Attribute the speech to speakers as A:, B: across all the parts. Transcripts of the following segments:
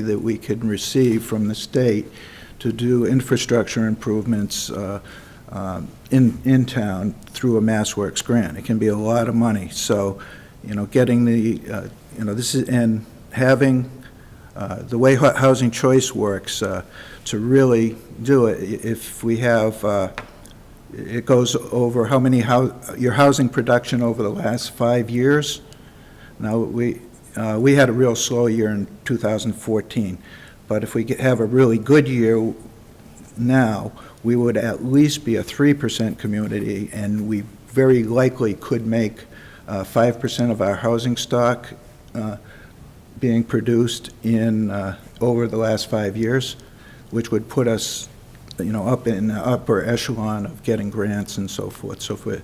A: that we can receive from the state to do infrastructure improvements uh, uh, in, in town through a MassWorks grant. It can be a lot of money. So, you know, getting the, uh, you know, this is, and having, uh, the way hu- Housing Choice works, uh, to really do it, i- if we have, uh, it goes over how many, hou- your housing production over the last five years. Now, we, uh, we had a real slow year in 2014, but if we could have a really good year now, we would at least be a 3% community, and we very likely could make uh, 5% of our housing stock uh, being produced in, uh, over the last five years, which would put us, you know, up in the upper echelon of getting grants and so forth. So if we,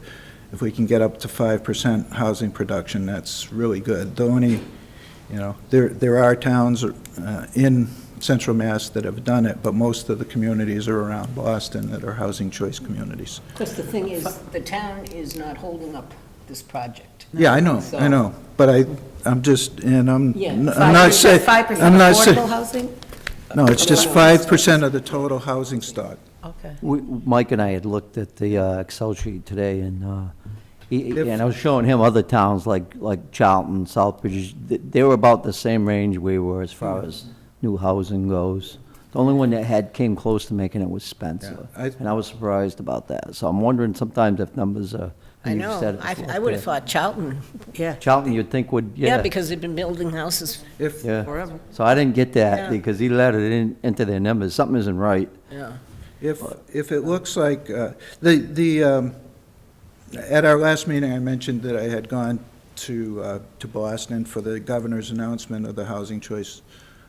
A: if we can get up to 5% housing production, that's really good. The only, you know, there, there are towns uh, in central Mass that have done it, but most of the communities are around Boston that are housing choice communities.
B: Of course, the thing is, the town is not holding up this project.
A: Yeah, I know, I
B: So-
A: know, but I, I'm just, and I'm,
B: Yeah.
A: I'm not saying.
C: Five percent
A: I'm not saying-
C: affordable housing?
A: No, it's just five percent of the total housing stock.
C: Okay.
D: We- Mike and I had looked at the uh, Excel sheet today, and, uh, he-
A: If-
D: and I was showing him other towns like, like Charlton, Southbridge, th- they were about the same range we were as far as new housing goes. The only one that had, came close to making it was Spencer,
A: Yeah, I-
D: and I was surprised about that. So I'm wondering sometimes if numbers are,
C: I
D: and you said
C: know,
D: it
C: I,
D: was
C: I would have
D: there.
C: thought Charlton, yeah.
D: Charlton, you'd think would, yeah.
C: Yeah, because they've been building houses
A: If,
D: yeah.
C: forever.
D: So I didn't get
C: Yeah.
D: that, because he let it in, into their numbers, something isn't right.
C: Yeah.
A: If, if it looks like, uh, the, the, um, at our last meeting, I mentioned that I had gone to, uh, to Boston for the governor's announcement of the Housing Choice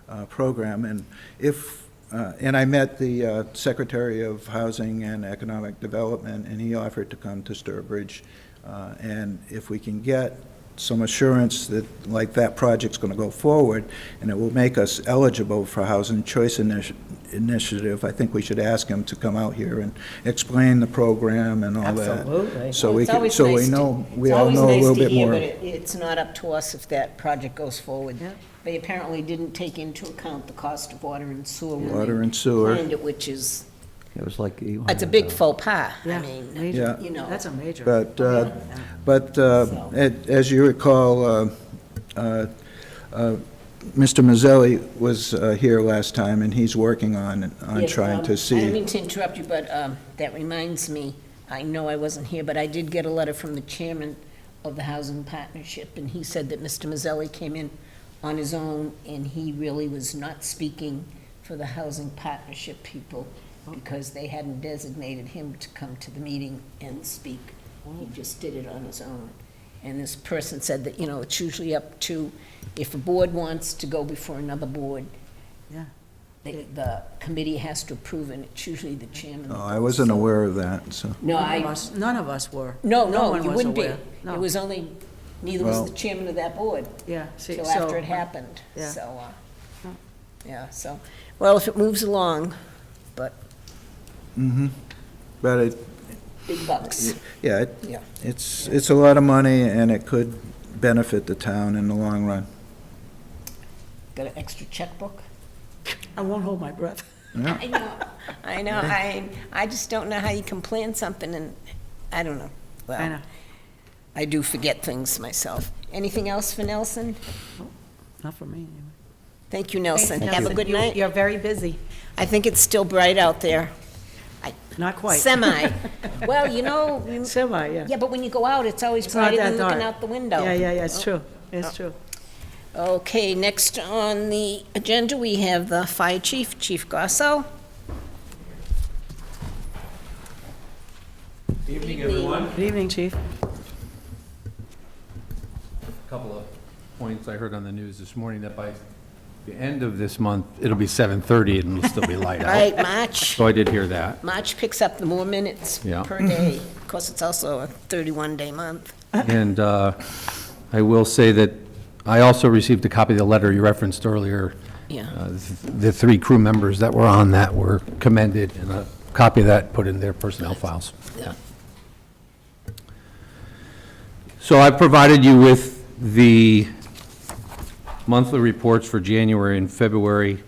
A: uh, Program, and if, uh, and I met the uh, Secretary of Housing and Economic Development, and he offered to come to Sturbridge, uh, and if we can get some assurance that, like, that project's going to go forward, and it will make us eligible for Housing Choice initi- Initiative, I think we should ask him to come out here and explain the program and all that.
C: Absolutely.
A: So
B: Well,
A: we,
B: it's
A: can-
B: always
A: so we
B: nice to-
A: know,
B: it's
A: we all
B: always
A: know a
B: nice
A: little
B: to
A: bit
B: hear,
A: more.
B: but it- It's not up to us if that project goes forward.
C: Yeah.
B: They apparently didn't take into account the cost of water and sewer. when they
A: Water and sewer.
B: planned it, Which is,
D: It was like.
B: it's a big faux pas, I
C: Yeah,
B: mean,
C: major.
A: Yeah.
B: you know.
C: That's a major.
A: But, uh, but uh, a- as you recall, uh, uh, uh, Mr. Mazzelli was uh, here last time, and he's working on, on
B: Yes,
A: trying
B: um,
A: to
B: I don't
A: see.
B: mean to interrupt you, but um, that reminds me, I know I wasn't here, but I did get a letter from the chairman of the Housing Partnership, and he said that Mr. Mazzelli came in on his own, and he really was not speaking for the Housing Partnership people, because they hadn't designated him to come to the meeting and speak.
C: Oh.
B: He just did it on his own. And this person said that, you know, it's usually up to, if a board wants to go before another board, the- the committee has to approve, and it's usually the chairman.
A: Oh, I wasn't aware of that, so.
B: No,
C: None of
B: I,
C: us, none of us were.
B: no, no,
C: one
B: you
C: was
B: wouldn't be.
C: aware.
B: It
C: No.
B: was only, neither
A: Well-
B: was the chairman of that board
C: Yeah. see,
B: till
C: so-
B: after it happened,
C: Yeah.
B: so, uh,
C: No.
B: yeah, so, well, if it moves along,
A: mhm. But it,
B: big bucks.
A: yeah, it-
B: Yeah.
A: it's, it's a lot of money, and it could benefit the town in the long run.
B: Got an extra checkbook?
C: I won't hold my breath.
A: Yeah.
B: I know, I know, I, I just don't know how you can plan something and, I don't know. Well,
C: I know.
B: I do forget things myself. Anything else for Nelson?
C: Not for me, anyway.
B: Thank you, Nelson.
C: Thanks,
B: Have a
C: Nelson.
B: good
C: You-
B: night.
C: You're very busy.
B: I think it's still bright out there.
C: Not quite.
B: Semi. Well, you know, you-
C: Semi, yeah.
B: yeah, but when you go out, it's always
C: It's not
B: brighter than
C: that
B: looking
C: dark.
B: out the window. Oh.
C: Yeah, yeah, yeah, it's true, it's true.
B: Okay, next on the agenda, we have the fire chief, Chief Grasso.
E: Evening, everyone.
C: Good evening, chief.
E: A Couple of points I heard on the news this morning that by the end of this month, it'll be 7:30 and it'll still be light
B: All
E: out.
B: right, March,
E: So I did hear that.
B: March picks up the more minutes
E: Yeah.
B: per day. Of course, it's also a 31-day month.
E: And uh, I will say that I also received a copy of the letter you referenced earlier.
B: Yeah.
E: Uh, The three crew members that were on that were commended, and a copy of that put in their personnel files.
B: Yeah.
E: So I provided you with the monthly reports for January and February